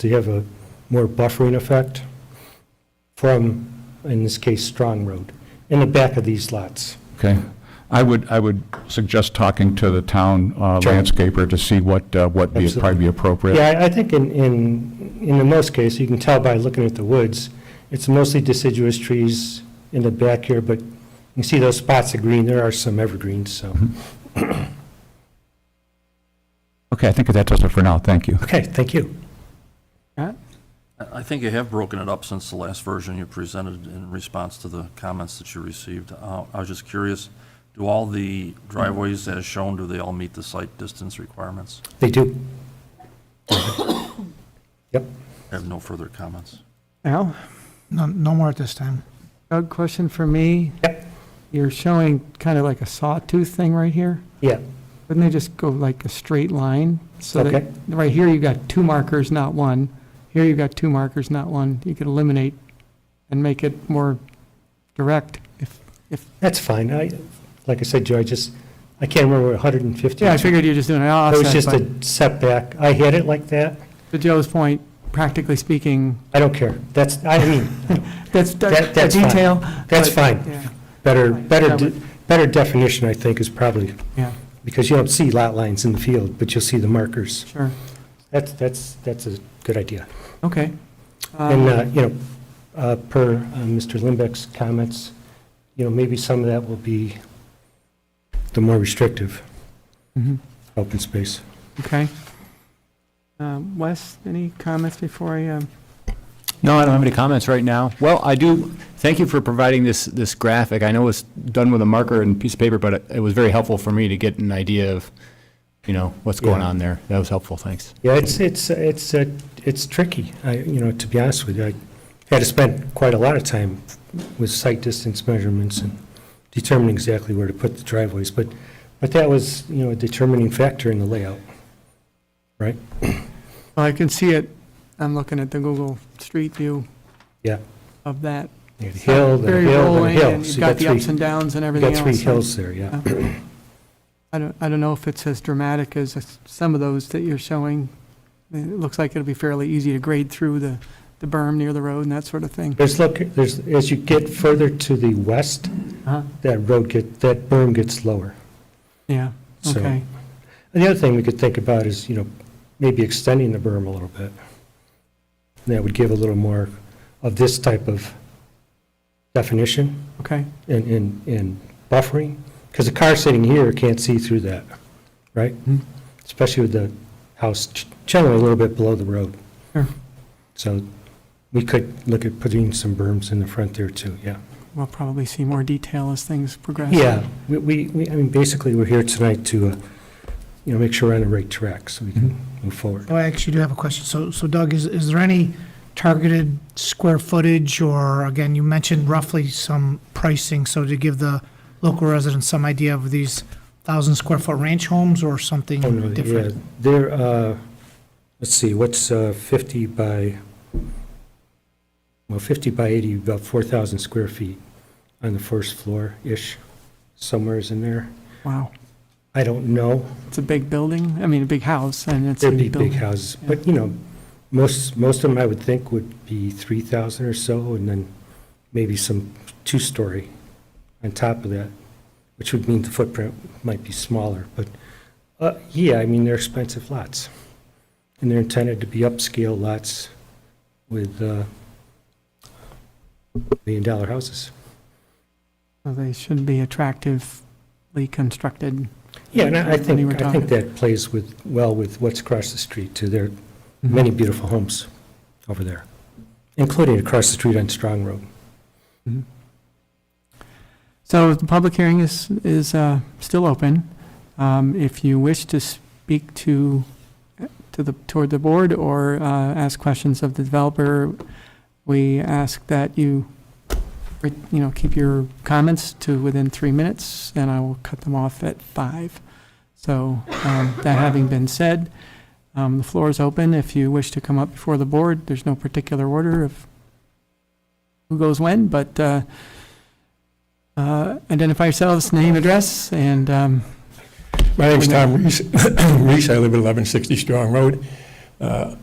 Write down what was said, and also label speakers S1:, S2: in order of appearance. S1: so you have a more buffering effect from, in this case, Strong Road, in the back of these lots.
S2: Okay. I would, I would suggest talking to the town uh,
S1: Sure.
S2: landscaper to see what, uh, what be, probably be appropriate.
S1: Yeah, I- I think in, in, in the most case, you can tell by looking at the woods, it's mostly deciduous trees in the back here, but you see those spots of green, there are some evergreens, so.
S2: Okay, I think that does it for now. Thank you.
S1: Okay, thank you.
S3: I I think you have broken it up since the last version you presented in response to the comments that you received. Uh, I was just curious, do all the driveways as shown, do they all meet the site distance requirements?
S1: They do. Yep.
S3: I have no further comments.
S4: Al,
S5: No, no more at this time.
S4: Doug, question for me?
S1: Yep.
S4: You're showing kind of like a sawtooth thing right here.
S1: Yeah,
S4: Wouldn't they just go like a straight line? So that-
S1: Okay.
S4: Right here, you've got two markers, not one. Here, you've got two markers, not one. You could eliminate and make it more direct if, if,
S1: that's fine. I, like I said, Joe, I just, I can't remember, 150.
S4: yeah, I figured you're just doing an
S1: It was just
S4: offset,
S1: a setback. I had it like that.
S4: but to Joe's point, practically speaking,
S1: I don't care. That's, I mean,
S4: that's,
S1: That-
S4: that's a
S1: that's fine.
S4: detail.
S1: That's
S4: but-
S1: fine.
S4: yeah,
S1: better,
S4: Right,
S1: better,
S4: that
S1: de- better definition, I think, is probably,
S4: Yeah,
S1: because you don't see lot lines in the field, but you'll see the markers.
S4: sure,
S1: That's, that's, that's a good idea.
S4: okay.
S1: And, uh,
S4: Um,
S1: you know, uh, per uh, Mr. Limbeck's comments, you know, maybe some of that will be the more restrictive
S4: mhm.
S1: open space.
S4: Okay. Um, Wes, any comments before I, um,
S6: No, I don't have any comments right now. Well, I do, thank you for providing this, this graphic. I know it's done with a marker and piece of paper, but it- it was very helpful for me to get an idea of, you know, what's going
S1: Yeah.
S6: on there. That was helpful, thanks.
S1: Yeah, it's, it's, it's, uh, it's tricky, I, you know, to be honest with you. I had to spend quite a lot of time with site distance measurements and determining exactly where to put the driveways, but, but that was, you know, a determining factor in the layout.
S4: well, I can see it, I'm looking at the Google Street View.
S1: Yeah.
S4: Of that.
S1: You had a hill, then a
S4: Very
S1: hill, then a
S4: rolling,
S1: hill.
S4: and
S1: So
S4: you've
S1: you
S4: got the
S1: three-
S4: ups and downs and
S1: You
S4: everything
S1: got
S4: else.
S1: three hills there, yeah.
S4: I don't, I don't know if it's as dramatic as s- some of those that you're showing. I mean, It looks like it'll be fairly easy to grade through the, the berm near the road and that sort of thing.
S1: There's, look, there's, as you get further to the west,
S4: Uh-huh.
S1: that road get, that berm gets lower.
S4: Yeah,
S1: So-
S4: okay.
S1: And the other thing we could think about is, you know, maybe extending the berm a little bit. And That would give a little more of this type of definition
S4: Okay,
S1: and, and, and buffering, because a car sitting here can't see through that, right? Especially with the house g- generally a little bit below the road.
S4: Sure.
S1: So we could look at putting some berms in the front there too, yeah.
S4: we'll probably see more detail as things progress.
S1: Yeah, we- we, we, I mean, basically, we're here tonight to, uh, you know, make sure we're on the right track so we can move forward.
S5: Oh, I actually do have a question. So, so Doug, is, is there any targeted square footage or, again, you mentioned roughly some pricing, so to give the local residents some idea of these thousand square foot ranch homes or something
S1: Oh, no, yeah,
S5: different?
S1: There, uh, let's see, what's uh, 50 by, well, 50 by 80, about 4,000 square feet on the first floor-ish, somewhere's in there.
S4: Wow,
S1: I don't know.
S4: it's a big building, I mean, a big house and it's. a
S1: There'd be big
S4: building.
S1: houses, but, you know, most, most of them I would think would be 3,000 or so, and then maybe some two-story on top of that, which would mean the footprint might be smaller, but, uh, yeah, I mean, they're expensive lots. And they're intended to be upscale lots with uh, million-dollar houses.
S4: So They should be attractively constructed.
S1: Yeah, and I I
S4: When you were
S1: think, I think
S4: talking.
S1: that plays with, well with what's across the street, too. There are many beautiful homes over there, including across the street on Strong Road.
S4: So the public hearing is, is uh, still open. Um, If you wish to speak to, to the, toward the board or uh, ask questions of the developer, we ask that you, re- you know, keep your comments to within three minutes, and I will cut them off at five. So um, that having been said, um, the floor is open. If you wish to come up before the board, there's no particular order of who goes when, but uh, uh, Identify yourselves, name, address, and, um,
S7: My name's Tom Reese. Reese, I live at 1160 Strong Road. Uh,